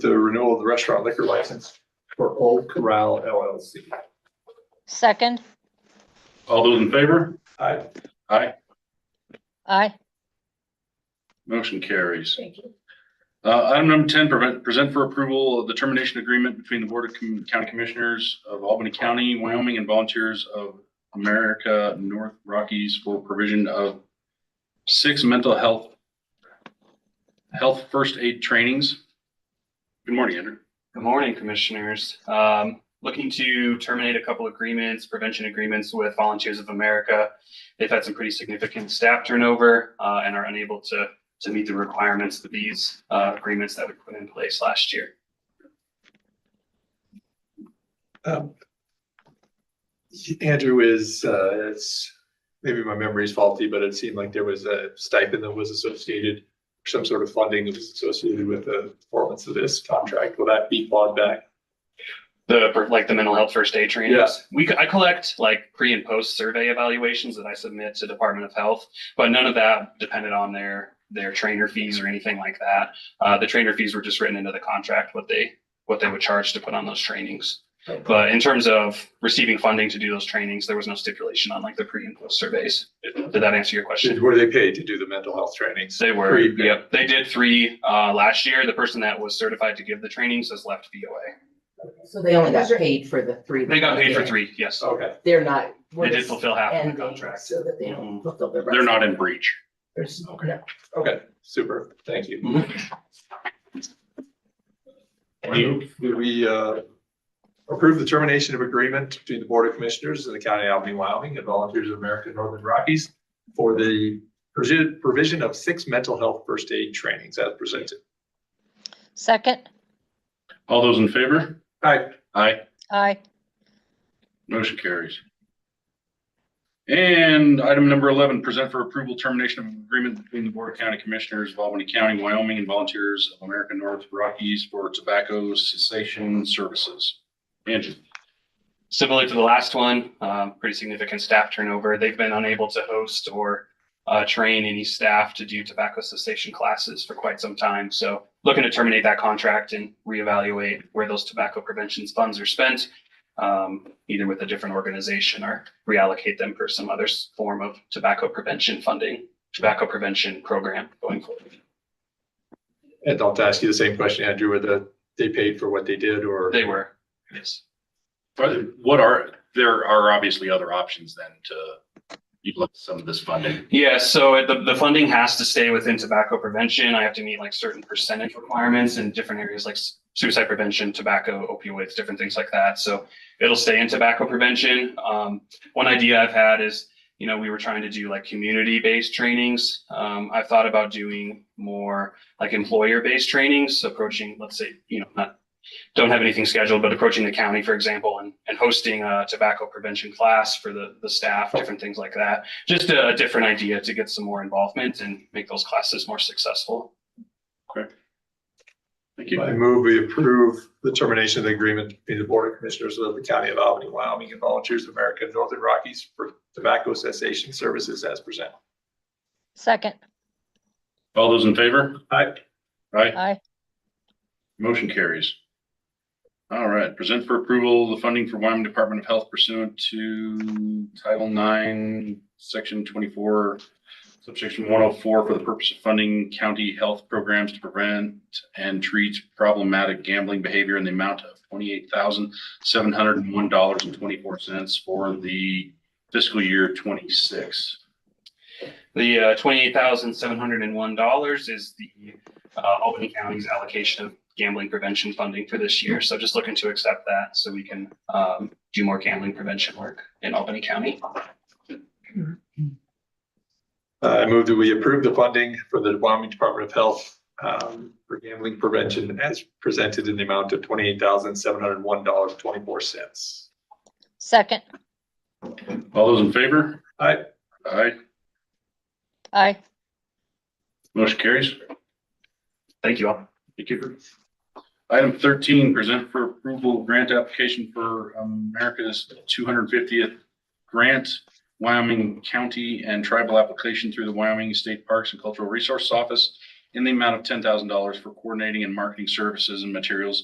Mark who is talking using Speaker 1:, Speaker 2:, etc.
Speaker 1: the renewal of the restaurant liquor license for Old Corral LLC.
Speaker 2: Second,
Speaker 3: All those in favor?
Speaker 1: Aye.
Speaker 3: Aye.
Speaker 2: aye.
Speaker 3: Motion carries.
Speaker 2: Thank you.
Speaker 3: Uh, item number ten, prevent, present for approval the termination agreement between the Board of Com- County Commissioners of Albany County, Wyoming, and Volunteers of America North Rockies for provision of six mental health, health first aid trainings. Good morning, Andrew.
Speaker 4: Good morning, Commissioners. Um, Looking to terminate a couple agreements, prevention agreements with Volunteers of America. They've had some pretty significant staff turnover uh, and are unable to, to meet the requirements of these uh, agreements that we put in place last year.
Speaker 1: Um, Andrew is, uh, it's, maybe my memory's faulty, but it seemed like there was a stipend that was associated, some sort of funding that was associated with the performance of this contract. Will that be clawed back?
Speaker 4: The, for, like the mental health first aid trainings. We, c- I collect like pre and post survey evaluations that I submit to Department of Health, but none of that depended on their, their trainer fees or anything like that. Uh, the trainer fees were just written into the contract, what they, what they would charge to put on those trainings. But in terms of receiving funding to do those trainings, there was no stipulation on like the pre and post surveys. Did that answer your question?
Speaker 1: Did- Were they paid to do the mental health trainings?
Speaker 4: They were,
Speaker 1: Three, yeah.
Speaker 4: yep. They did three, uh, last year. The person that was certified to give the trainings has left BOA.
Speaker 5: So they only got
Speaker 6: Is there-
Speaker 5: paid for the three.
Speaker 4: They got paid for three, yes.
Speaker 1: Okay,
Speaker 5: They're not.
Speaker 4: They did fulfill half of the
Speaker 5: And
Speaker 4: contract.
Speaker 5: so that they
Speaker 6: Mm-hmm.
Speaker 5: don't fulfill the rest.
Speaker 3: They're not in breach.
Speaker 5: There's-
Speaker 1: Okay.
Speaker 5: no.
Speaker 1: okay, super, thank you.
Speaker 3: Thank you.
Speaker 1: Do we uh, approve the termination of agreement between the Board of Commissioners of the County of Albany, Wyoming and Volunteers of America Northern Rockies for the provi- provision of six mental health first aid trainings as presented?
Speaker 2: Second,
Speaker 3: All those in favor?
Speaker 1: Aye.
Speaker 3: Aye.
Speaker 2: aye.
Speaker 3: Motion carries. And item number eleven, present for approval termination of agreement between the Board of County Commissioners of Albany County, Wyoming, and Volunteers of America North Rockies for tobacco cessation services. Andrew,
Speaker 4: Similar to the last one, um, pretty significant staff turnover. They've been unable to host or uh, train any staff to do tobacco cessation classes for quite some time. So looking to terminate that contract and reevaluate where those tobacco prevention funds are spent, um, either with a different organization or reallocate them for some other s- form of tobacco prevention funding, tobacco prevention program going forward.
Speaker 1: And I'll ask you the same question, Andrew, whether they paid for what they did or?
Speaker 4: They were, yes.
Speaker 3: are there- what are, there are obviously other options then to utilize some of this funding.
Speaker 4: Yeah, so it- the, the funding has to stay within tobacco prevention. I have to meet like certain percentage requirements in different areas like s- suicide prevention, tobacco, opioids, different things like that. So it'll stay in tobacco prevention. Um, one idea I've had is, you know, we were trying to do like community-based trainings. Um, I've thought about doing more like employer-based trainings, approaching, let's say, you know, not, don't have anything scheduled, but approaching the county, for example, and, and hosting a tobacco prevention class for the, the staff, different things like that just a, a different idea to get some more involvement and make those classes more successful.
Speaker 3: Thank you.
Speaker 1: I move we approve the termination of the agreement between the Board of Commissioners of the County of Albany, Wyoming and Volunteers of America Northern Rockies for tobacco cessation services as presented.
Speaker 2: Second,
Speaker 3: All those in favor?
Speaker 1: Aye.
Speaker 3: Aye.
Speaker 2: aye.
Speaker 3: Motion carries. All right, present for approval the funding for Wyoming Department of Health pursuant to Title Nine, Section twenty-four, subsection one oh four for the purpose of funding county health programs to prevent and treat problematic gambling behavior in the amount of twenty-eight thousand, seven hundred and one dollars and twenty-four cents for the fiscal year twenty-six.
Speaker 4: The uh, twenty-eight thousand seven hundred and one dollars is the uh, Albany County's allocation of gambling prevention funding for this year. So just looking to accept that so we can um, do more gambling prevention work in Albany County.
Speaker 1: Uh, I move that we approve the funding for the Wyoming Department of Health um, for gambling prevention as presented in the amount of twenty-eight thousand, seven hundred and one dollars, twenty-four cents.
Speaker 2: Second,
Speaker 3: All those in favor?
Speaker 1: Aye.
Speaker 3: Aye.
Speaker 2: aye.
Speaker 3: Motion carries.
Speaker 4: Thank you all.
Speaker 3: Thank you. Item thirteen, present for approval grant application for um, America's two hundred fiftieth grant, Wyoming County and Tribal application through the Wyoming State Parks and Cultural Resource Office in the amount of ten thousand dollars for coordinating and marketing services and materials